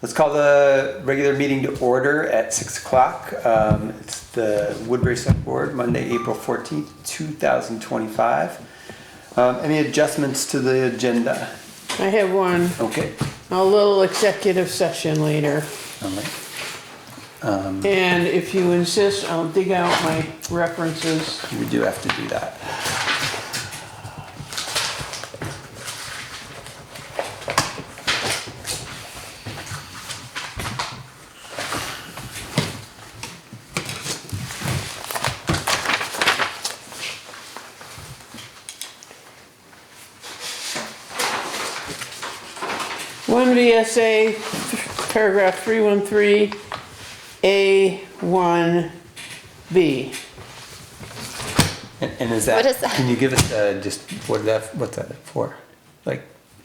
Let's call the regular meeting to order at 6 o'clock. Um, It's the Woodbury Select Board, Monday, April 14th, 2025. Um, Any adjustments to the agenda? I have one, Okay. a little executive session later. All right. And if you insist, I'll dig out my references. We do have to do that. One VSA, paragraph three one three, A one B. And and is that? What is that? Can you give us uh, just what that, what's that for? Like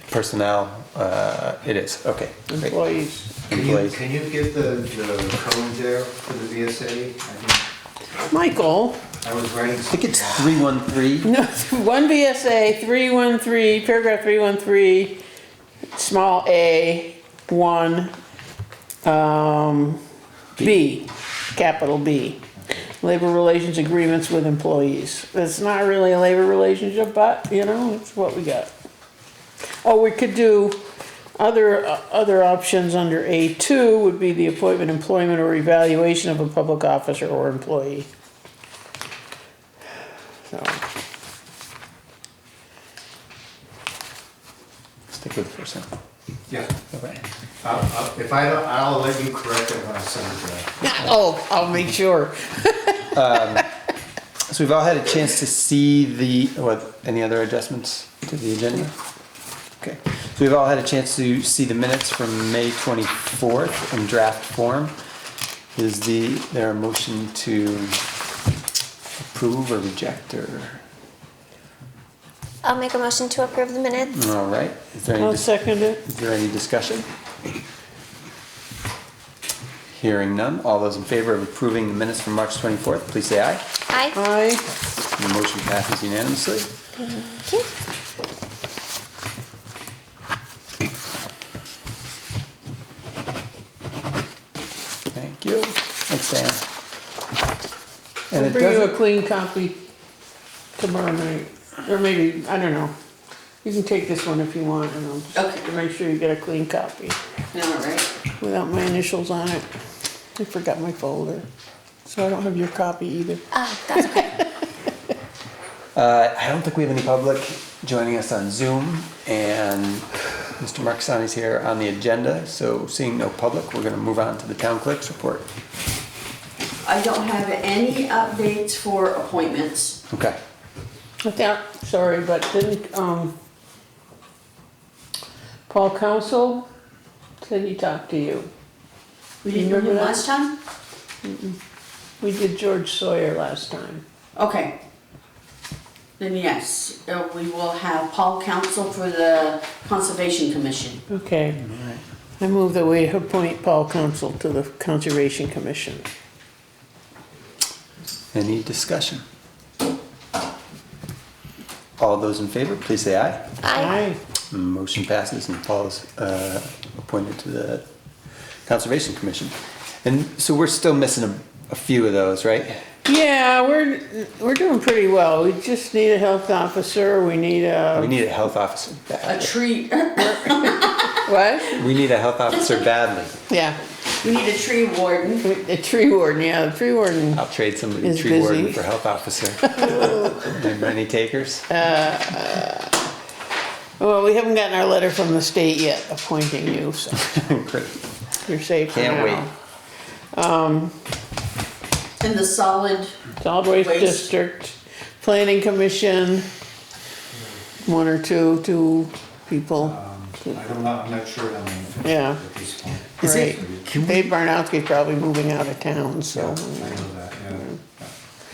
personnel? uh, It is, okay. great. Employees. Can you, Employees. can you give the, the code there for the VSA? I think, Michael, I was writing. I think it's 313. no, one VSA three one three, paragraph three one three, small a, one, um, B, capital B. Labor relations agreements with employees. It's not really a labor relationship, but, you know, it's what we got. Oh, we could do other, uh, other options under A two would be the appointment, employment, or evaluation of a public officer or employee. So, Stick with the person. Yeah, Okay. I'll- I'll- if I don't, I'll let you correct it when I send it back. oh, I'll make sure. So we've all had a chance to see the, what, any other adjustments to the agenda? Okay, so we've all had a chance to see the minutes from May 24th in draft form. Is the, there a motion to approve or reject or, I'll make a motion to approve the minutes. all right? Is there any, I'll dis- second it. is there any discussion? Hearing none, all those in favor of approving the minutes from March 24th, please say aye. Aye. Aye. The motion passes unanimously. Thank you. Thank you. Thanks, Dan. And I'll it bring you a doesn't, clean copy tomorrow night, or maybe, I don't know. You can take this one if you want, and I'll just Okay. make sure you get a clean copy All right. without my initials on it. I forgot my folder, so I don't have your copy either. Oh, that's okay. uh, I don't think we have any public joining us on Zoom, and Mr. Markasani's here on the agenda, so seeing no public, we're gonna move on to the town clerk's report. I don't have any updates for appointments. Okay. Yeah, sorry, but didn't, um, Paul Council, said he talked to you. We didn't do Remember them that? last time? We did George Sawyer last time. Okay. Then yes, uh, we will have Paul Council for the Conservation Commission. Okay. I move that we appoint Paul Council to the Conservation Commission. Any discussion? All those in favor, please say aye. Aye. Motion passes and Paul is uh, appointed to the Conservation Commission. And so we're still missing a- a few of those, right? Yeah, we're, we're doing pretty well. We just need a health officer, we need We a, need a health officer A badly. tree, what? We need a health officer badly. Yeah, we need a tree warden. a tree warden, yeah, the tree warden. I'll trade somebody Is tree warden busy. for health officer. Remember any takers? Well, we haven't gotten our letter from the state yet appointing you, so Great. you're safe for Can't now. wait. And the solid, Solid Waste Waste. District, Planning Commission, one or two, two people. Um, I'm not, I'm not sure how many. Yeah. At this point. Is it- Right. Dave Barnowski's probably moving out of town, so. I know that, yeah.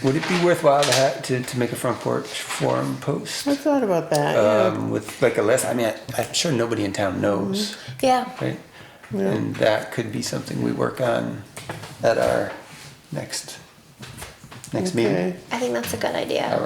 Would it be worthwhile to ha to, to make a front porch forum post? I thought about that, yeah. Um, with like a list, I mean, I- I'm sure nobody in town knows, Yeah. Mm-hmm. right? And that could be something we work on at our next, next meeting. Okay. I think that's a good idea. All